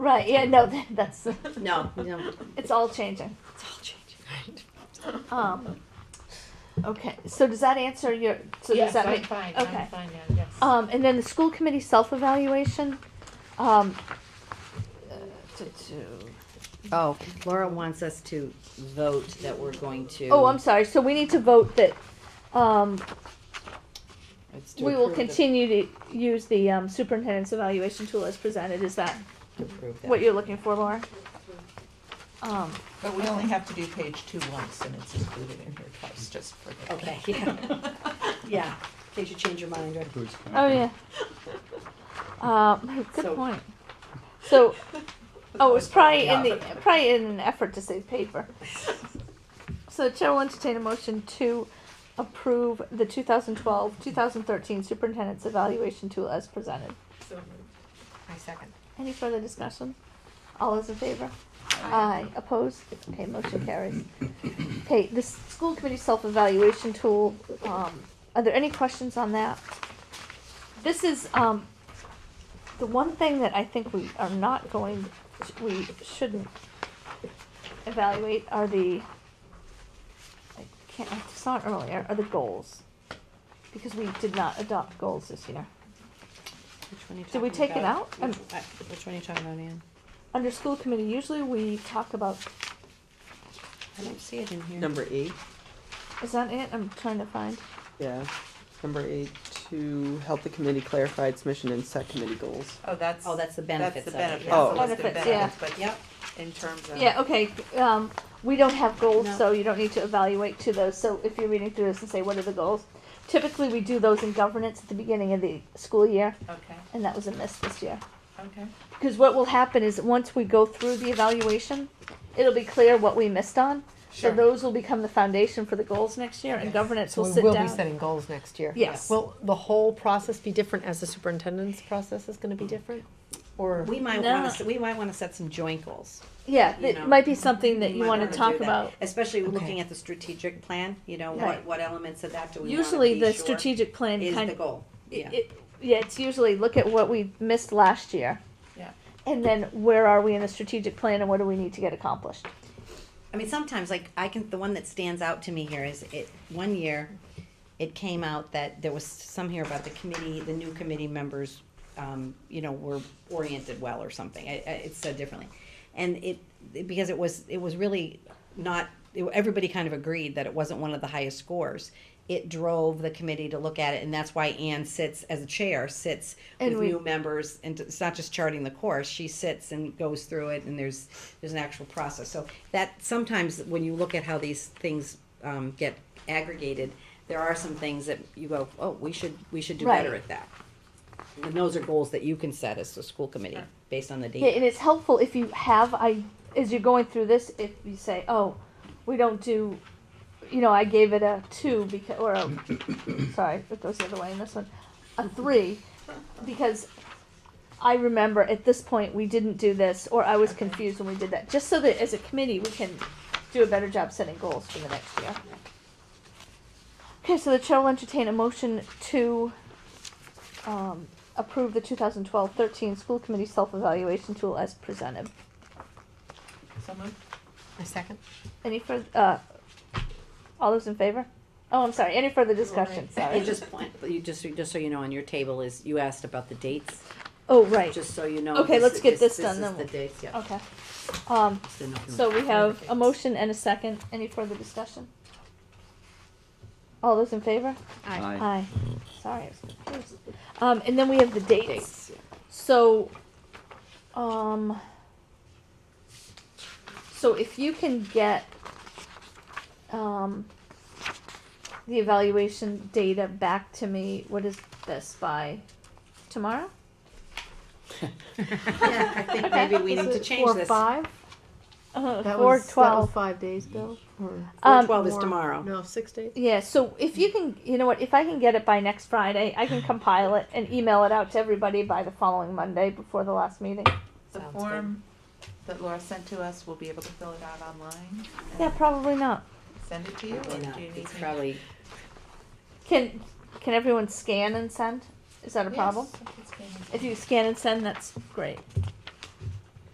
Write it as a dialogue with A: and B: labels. A: Right, yeah, no, that- that's,
B: No, no,
A: it's all changing.
B: it's all changing.
A: Um, okay, so does that answer your, so does
C: Yes,
A: that
C: I'm
A: make?
C: fine,
A: okay.
C: I'm fine now, yes.
A: Um, and then the school committee self-evaluation, um, uh, to, to,
B: Oh, Laura wants us to vote that we're going to.
A: oh, I'm sorry, so we need to vote that, um,
B: It's to
A: we will
B: approve the-
A: continue to use the um, superintendent's evaluation tool as presented, is that
B: to approve that.
A: what you're looking for, Laura? Um,
D: But we only have to do page two once and it's included in here twice, just for the.
B: Okay, yeah. Yeah, in case you change your mind, or
A: oh, yeah. Um, good
B: So-
A: point. So, Oh, it's probably in the, probably in an effort to save paper. So the chair will entertain a motion to approve the 2012-2013 superintendent's evaluation tool as presented.
D: My second.
A: Any further discussion? All those in favor? Aye. Opposed? Okay, motion carries. Okay, the s- school committee self-evaluation tool, um, are there any questions on that? This is, um, the one thing that I think we are not going, we shouldn't evaluate are the, I can't, I saw it earlier, are the goals. Because we did not adopt goals this year.
B: Which one are you
A: Did we
B: talking
A: take it
B: about?
A: out?
B: Which uh, which one are you talking about, Ann?
A: Under school committee, usually we talk about
B: I don't see it in here.
E: Number eight,
A: Is that it? I'm trying to find.
E: yeah, number eight, to help the committee clarify its mission and set committee goals.
D: Oh, that's.
B: Oh, that's the benefits
D: That's
B: of
D: the
B: it,
D: benefits.
B: yeah.
E: Oh.
D: the list of
A: Benefits, yeah.
D: benefits,
B: Yep,
D: But in terms of.
A: Yeah, okay, um, we don't have goals,
B: No.
A: so you don't need to evaluate to those, so if you're reading through this and say, what are the goals? Typically, we do those in governance at the beginning of the school year,
D: Okay,
A: and that was a miss this year.
D: okay.
A: Because what will happen is, once we go through the evaluation, it'll be clear what we missed on. So
D: Sure.
A: those will become the foundation for the goals next year, and
D: Yes.
A: governance will
C: So
A: sit
C: We will be
A: down.
C: setting goals next year.
A: Yes.
C: Will the whole process be different as the superintendent's process is gonna be different? Or,
B: we might
A: No.
B: wanna, s- we might wanna set some joint goals.
A: Yeah,
B: you know,
A: it might be something that
B: We
A: you
B: might
A: wanna
B: do
A: talk
B: that,
A: about.
B: Especially looking
C: Okay.
B: at the strategic plan, you know,
A: Right.
B: what, what elements of that do we wanna be sure
A: Usually, the strategic plan
B: is
A: kind
B: the
A: of
B: goal, yeah.
A: It- Yeah, it's usually look at what we missed last year.
D: Yeah.
A: And then where are we in the strategic plan and what do we need to get accomplished?
B: I mean, sometimes like I can the one that stands out to me here is it one year it came out that there was some here about the committee, the new committee members, um, you know, were oriented well or something. I, I, it's said differently, and it because it was it was really not it, everybody kind of agreed that it wasn't one of the highest scores. It drove the committee to look at it, and that's why Anne sits as a chair, sits
A: And
B: with
A: we-
B: new members, and it's not just charting the course. She sits and goes through it, and there's there's an actual process. So that sometimes when you look at how these things um, get aggregated, there are some things that you go, oh, we should we should do better
A: Right.
B: at that. And those are goals that you can set as the school committee based on the data.
A: Yeah, and it's helpful if you have, I, as you're going through this, if you say, oh, we don't do, you know, I gave it a two because, or a, sorry, it goes the other way in this one, a three, because I remember at this point we didn't do this, or I was confused when we did that, just so that as a committee we can do a better job setting goals for the next year. Okay, so the chair will entertain a motion to, um, approve the 2012-13 school committee self-evaluation tool as presented.
D: So moved?
C: a second?
A: Any further, uh, all those in favor? Oh, I'm sorry, any further discussion,
B: And
A: sorry.
B: just point, but you just just so you know, on your table is you asked about the dates.
A: Oh, right,
B: Just so you know.
A: Okay,
B: this-
A: let's get this
B: This
A: done,
B: is
A: then
B: the dates. Yeah.
A: okay. Um,
B: So no-
A: so we have a motion and a second, any further discussion? All those in favor? Aye. Sorry, I was confused. Um, and then we have the dates.
B: Dates.
A: So, um, so if you can get, um, the evaluation data back to me, what is this by tomorrow?
B: Yeah, I think
A: Okay.
B: maybe we need to change this. Four
F: five?
A: Uh,
F: That
A: four
F: was, that was
A: twelve.
F: five days ago, or,
A: um,
B: twelve is
F: more.
B: tomorrow.
C: No, six days?
A: Yeah, so if you can, you know what, if I can get it by next Friday, I can compile it and email it out to everybody by the following Monday before the last meeting.
D: The
C: Sounds good.
D: form that Laura sent to us, we'll be able to fill it out online
A: Yeah,
D: and
A: probably not.
D: send it to you, or
B: Why not?
D: do you need me?
B: It's probably
A: Can, can everyone scan and send? Is that a problem?
D: Yes, it's gonna be-
A: If you scan and send, that's great.